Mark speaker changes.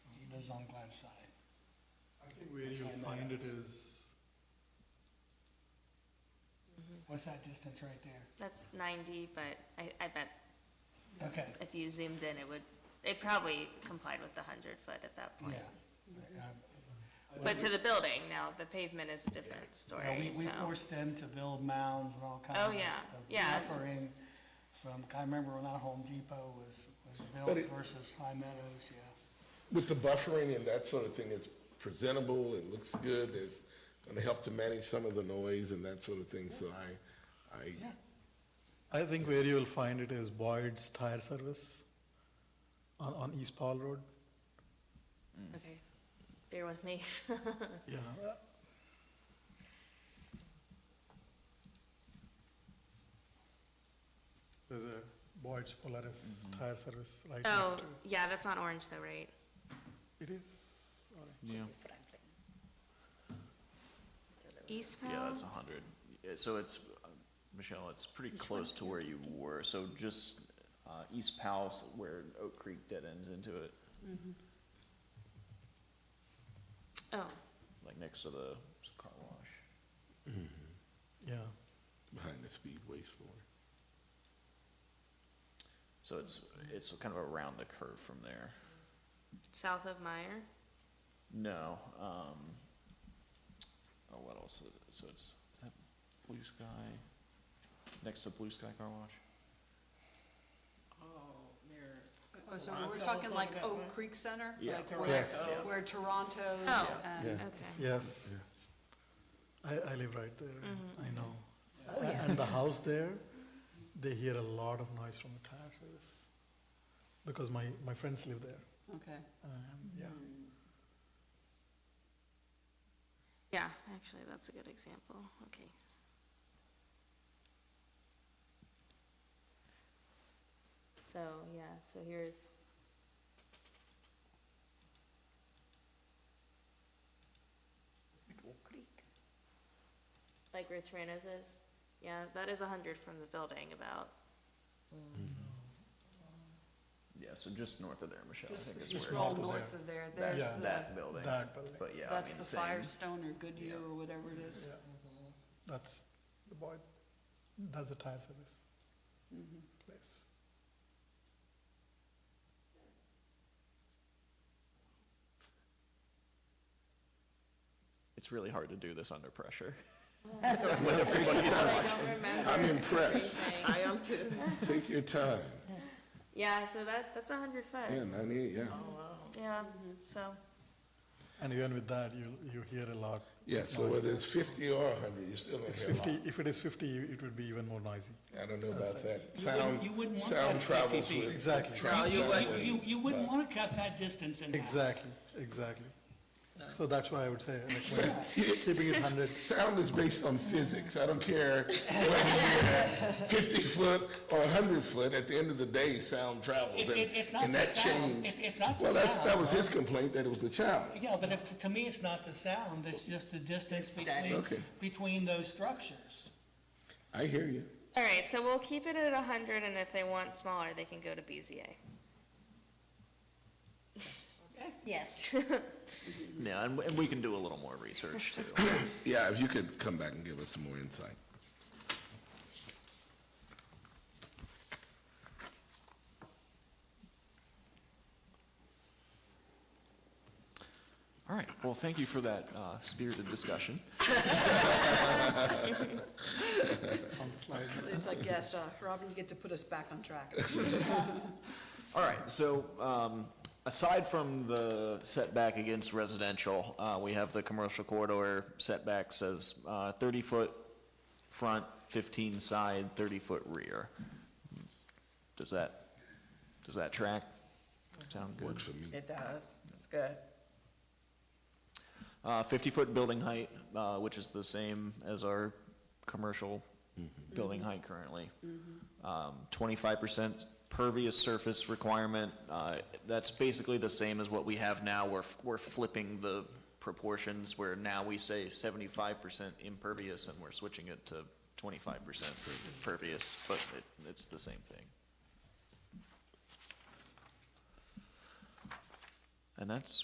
Speaker 1: is on Glenn's side.
Speaker 2: I think where
Speaker 1: That's
Speaker 2: you
Speaker 1: how I know
Speaker 2: find it
Speaker 1: it
Speaker 2: is,
Speaker 1: What's that distance right there?
Speaker 3: That's 90, but I, I bet
Speaker 1: Okay,
Speaker 3: if you zoomed in, it would, it probably complied with the 100-foot at that
Speaker 1: yeah. um,
Speaker 3: point.
Speaker 2: I
Speaker 3: But
Speaker 2: think
Speaker 3: to the building, now, the pavement is a different
Speaker 1: Yeah, we-
Speaker 3: story,
Speaker 1: We
Speaker 3: so.
Speaker 1: forced them to build mounds and all kinds of
Speaker 3: yeah,
Speaker 1: of
Speaker 3: yes.
Speaker 1: buffering from, I remember when our Home Depot was, was
Speaker 4: But
Speaker 1: built
Speaker 4: it-
Speaker 1: versus High Meadows, yeah.
Speaker 4: With the buffering and that sort of thing, it's presentable, it looks good, it's going to help to manage some of the noise and that sort of thing, so I, I,
Speaker 1: Yeah.
Speaker 2: I think where you will find it is Boyd's Tire Service on, on East Paul Road.
Speaker 3: Okay, bear with me.
Speaker 2: Yeah. There's a Boyd's Polaris Tire Service right next to
Speaker 3: Oh,
Speaker 2: it.
Speaker 3: yeah, that's not orange though, right?
Speaker 2: It is, all right.
Speaker 5: Yeah,
Speaker 3: Eastbound?
Speaker 6: Oh.
Speaker 5: yeah, that's a hundred. So it's, uh, Michelle, it's pretty close to where you were, so just, uh, East Powell, s- where Oak Creek dead ends into it,
Speaker 3: Oh,
Speaker 5: like next to the s- car wash.
Speaker 2: yeah.
Speaker 4: behind the speedway store.
Speaker 5: So it's, it's kind of around the curve from there.
Speaker 3: south of Meyer?
Speaker 5: No, um, oh, what else is it? So it's, is that Blue Sky, next to Blue Sky Car Wash?
Speaker 6: Oh,
Speaker 5: Uh,
Speaker 6: so we're talking like Oak Creek Center?
Speaker 5: Yeah.
Speaker 6: Like where,
Speaker 4: Yes.
Speaker 6: where Toronto's
Speaker 3: Oh.
Speaker 6: and,
Speaker 3: Okay.
Speaker 2: Yes. I, I live right there, I know.
Speaker 1: Oh,
Speaker 2: A- And the house there, they hear a lot of noise from the tire service. Because my, my friends live there,
Speaker 7: Okay.
Speaker 2: um, yeah.
Speaker 3: Yeah, actually, that's a good example. Okay. So, yeah, so here's. Like Rich Rano's is? Yeah, that is a hundred from the building about.
Speaker 5: Yeah, so just north of there, Michelle, I
Speaker 6: just,
Speaker 5: think
Speaker 6: just
Speaker 5: is
Speaker 6: roll
Speaker 5: where,
Speaker 6: north of there, there's
Speaker 2: Yeah.
Speaker 5: that
Speaker 6: the,
Speaker 5: building.
Speaker 2: That building.
Speaker 5: But yeah, I
Speaker 7: That's
Speaker 5: mean,
Speaker 7: the
Speaker 5: same.
Speaker 7: Firestone or Goodyear
Speaker 5: Yeah.
Speaker 7: or whatever it is.
Speaker 2: Yeah, Mm-hmm. that's the boy, that's the tire service
Speaker 5: Mm-hmm.
Speaker 2: place.
Speaker 5: It's really hard to do this under pressure.
Speaker 3: I don't remember.
Speaker 4: I'm impressed.
Speaker 3: everything.
Speaker 7: am too.
Speaker 4: Take your time.
Speaker 3: Yeah, so that, that's a hundred foot.
Speaker 4: Yeah, ninety-eight, yeah.
Speaker 3: Yeah, so.
Speaker 2: And even with that, you, you hear a lot.
Speaker 4: Yeah, so
Speaker 2: noise.
Speaker 4: whether it's fifty or a hundred, you're still going
Speaker 2: It's
Speaker 4: to hear a lot.
Speaker 2: fifty, if it is fifty, it would be even more noisy.
Speaker 4: I don't know about that.
Speaker 8: You wouldn't-
Speaker 4: Sound,
Speaker 8: you wouldn't want
Speaker 4: sound
Speaker 8: that
Speaker 4: travels
Speaker 8: 50 feet.
Speaker 4: with.
Speaker 2: Exactly.
Speaker 4: tra-
Speaker 8: You,
Speaker 4: travel
Speaker 8: you,
Speaker 4: ways,
Speaker 8: you wouldn't
Speaker 4: but-
Speaker 8: want to cut that distance in half.
Speaker 2: Exactly, exactly. So that's why I would say, like, when keeping it hundred,
Speaker 4: Sound is based on physics. I don't care whether you're fifty foot or hundred foot. At the end of the day, sound travels,
Speaker 8: It-
Speaker 4: and,
Speaker 8: it- it's not
Speaker 4: and
Speaker 8: the
Speaker 4: that
Speaker 8: sound.
Speaker 4: change.
Speaker 8: It- it's not the
Speaker 4: Well, that's,
Speaker 8: sound,
Speaker 4: that was his complaint, that it was the child.
Speaker 8: Yeah, but it- to me, it's not the sound, it's just the distance between,
Speaker 4: Okay.
Speaker 8: between those structures.
Speaker 4: I hear you.
Speaker 3: All right, so we'll keep it at 100, and if they want smaller, they can go to BZA. Yes.
Speaker 5: Yeah, and, and we can do a little more research too.
Speaker 4: Yeah, if you could come back and give us some more insight.
Speaker 5: All right, well, thank you for that uh, spirited discussion.
Speaker 2: on slide.
Speaker 7: It's like, yes, uh, Robin, you get to put us back on track.
Speaker 5: All right, so um, aside from the setback against residential, uh, we have the commercial corridor setback says 30-foot front, 15 side, 30-foot rear. Does that, does that track? Sound good?
Speaker 4: Works for me.
Speaker 9: It does, it's good.
Speaker 5: Uh, 50-foot building height, uh, which is the same as our commercial
Speaker 4: Mm-hmm.
Speaker 5: building height currently.
Speaker 9: Mm-hmm.
Speaker 5: Um, 25% pervious surface requirement, uh, that's basically the same as what we have now. We're, we're flipping the proportions where now we say 75% impervious and we're switching it to 25% for pervious, but it, it's the same thing. And that's